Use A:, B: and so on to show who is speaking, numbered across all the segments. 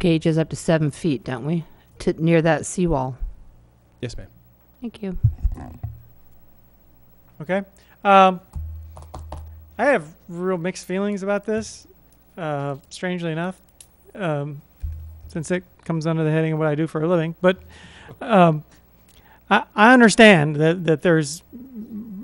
A: gauges up to seven feet, don't we? To, near that seawall.
B: Yes, ma'am.
A: Thank you.
C: Okay. Um, I have real mixed feelings about this, uh, strangely enough, um, since it comes under the heading of what I do for a living. But um, I, I understand that, that there's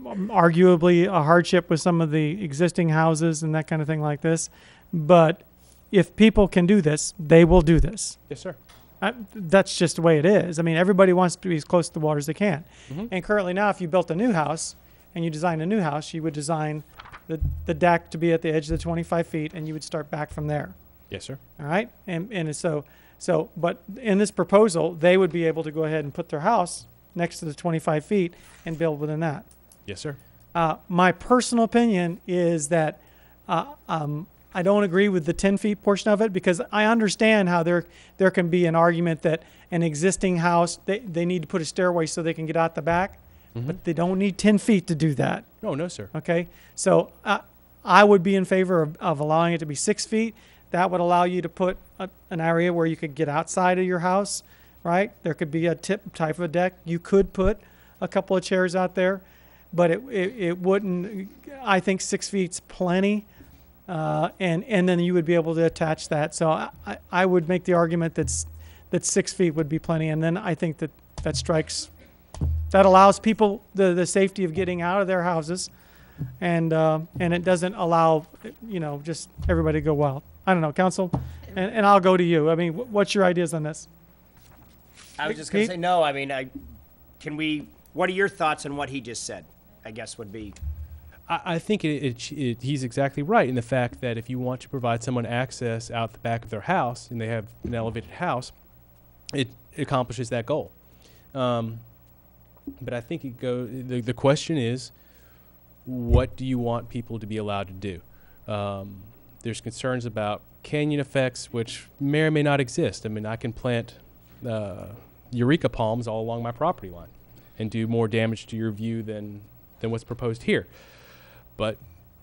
C: arguably a hardship with some of the existing houses and that kind of thing like this. But if people can do this, they will do this.
B: Yes, sir.
C: I, that's just the way it is. I mean, everybody wants to be as close to the water as they can.
B: Mhm.
C: And currently now, if you built a new house and you designed a new house, you would design the, the deck to be at the edge of the 25 feet and you would start back from there.
B: Yes, sir.
C: All right. And, and so, so, but in this proposal, they would be able to go ahead and put their house next to the 25 feet and build within that.
B: Yes, sir.
C: Uh, my personal opinion is that uh, um, I don't agree with the 10 feet portion of it because I understand how there there can be an argument that an existing house they, they need to put a stairway so they can get out the back, but they don't need 10 feet to do that.
B: No, no, sir.
C: Okay, so I I would be in favor of, of allowing it to be six feet. That would allow you to put a, an area where you could get outside of your house, right? There could be a tip type of a deck. You could put a couple of chairs out there, but it it, it wouldn't. I think six feet's plenty, uh, and and then you would be able to attach that. So I, I, I would make the argument that's that six feet would be plenty, and then I think that that strikes. That allows people the, the safety of getting out of their houses and uh, and it doesn't allow you know just everybody to go wild. I don't know, council, and, and I'll go to you. I mean, wh- what's your ideas on this?
D: I was just gonna
C: Pete?
D: say, no, I mean, I, can we, what are your thoughts on what he just said? I guess would be,
B: I, I think it, it, sh- it, he's exactly right in the fact that if you want to provide someone access out the back of their house and they have an elevated house, it accomplishes that goal. Um, but I think it go, the, the question is, what do you want people to be allowed to do? Um, there's concerns about canyon effects, which may or may not exist. I mean, I can plant uh, eureka palms all along my property line and do more damage to your view than, than what's proposed here. But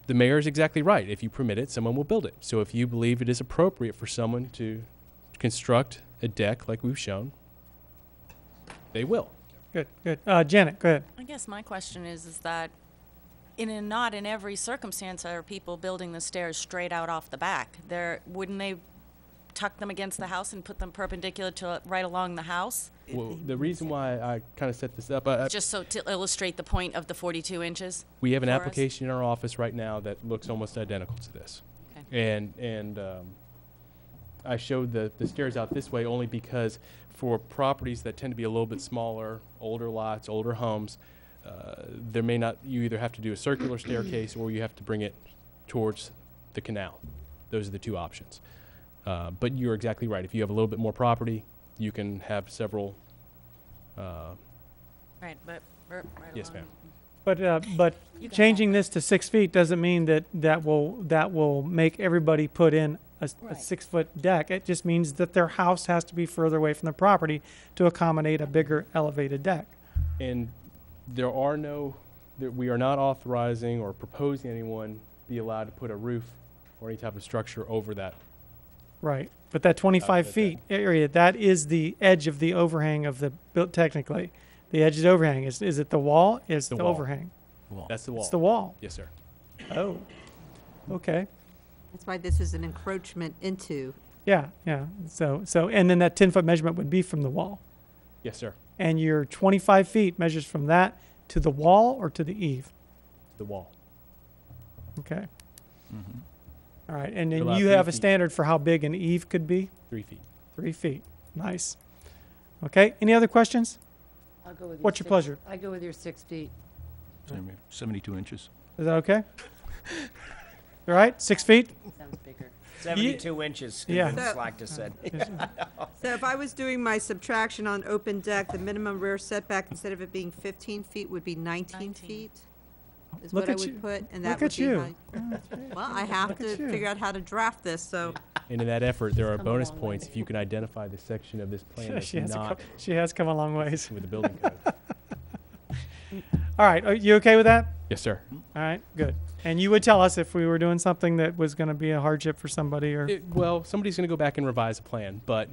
B: the mayor is exactly right. If you permit it, someone will build it. So if you believe it is appropriate for someone to construct a deck like we've shown, they will.
C: Good, good. Uh, Janet, go ahead.
E: I guess my question is, is that in and not in every circumstance are people building the stairs straight out off the back? There, wouldn't they tuck them against the house and put them perpendicular to, right along the house?
B: Well, the reason why I kind of set this up, I, I-
E: Just so to illustrate the point of the forty-two inches?
B: we have an
E: for us?
B: application in our office right now that looks almost identical to this.
E: Okay.
B: And, and um, I showed the, the stairs out this way only because for properties that tend to be a little bit smaller, older lots, older homes, uh, there may not, you either have to do a circular staircase or you have to bring it towards the canal. Those are the two options. Uh, But you're exactly right. If you have a little bit more property, you can have several, uh,
E: Right, but, right along.
B: Yes, ma'am.
C: But uh, but
E: You can
C: changing this to six feet doesn't mean that that will that will make everybody put in a, s- a
E: Right.
C: six foot deck. It just means that their house has to be further away from the property to accommodate a bigger elevated deck.
B: And there are no, that we are not authorizing or proposing anyone be allowed to put a roof or any type of structure over that.
C: Right. But that 25
B: that.
C: feet area, that is the edge of the overhang of the built technically. The edge of the overhang is is it the wall? Is
B: The
C: the,
B: wall.
C: overhang?
B: That's the wall.
C: It's the wall.
B: Yes, sir.
C: Oh. Okay.
F: That's why this is an encroachment into.
C: Yeah, yeah. So so and then that 10 foot measurement would be from the wall.
B: Yes, sir.
C: And your 25 feet measures from that to the wall or to the eave.
B: The wall.
C: Okay. All right. And then
B: Allow
C: you
B: Mm-hmm. three
C: have a
B: feet.
C: standard for how big an eave could be?
B: Three feet.
C: Three feet. Nice. Okay. Any other questions?
G: I'll go with
C: What's your
G: six-
C: pleasure?
G: I go with your six feet.
H: Anyway, 72 inches.
C: Is that okay? All right. Six feet.
G: Sounds bigger.
D: seventy-two inches,
C: Yeah.
D: Stephen
F: So-
D: Slack just said.
F: So if I was doing my subtraction on open deck, the minimum rear setback, instead of it being 15 feet, would be 19
E: 19.
F: feet? Is
C: Look
F: what I
C: at you.
F: would put,
C: Look
F: and that
C: at
F: would be
C: you. Oh,
F: my. Well, I have
C: at
F: to
C: you.
F: figure out how to draft this, so
B: And in that effort, there are
G: come a
B: bonus
G: long way.
B: points if you can identify the section of this plan
C: she
B: that's
C: has a cou-
B: not
C: she has come a long ways.
B: with the building code.
C: All right, are you okay with that?
B: Yes, sir.
C: All right, good. And you would tell us if we were doing something that was going to be a hardship for somebody or?
B: It- well, somebody's going to go back and revise the plan, but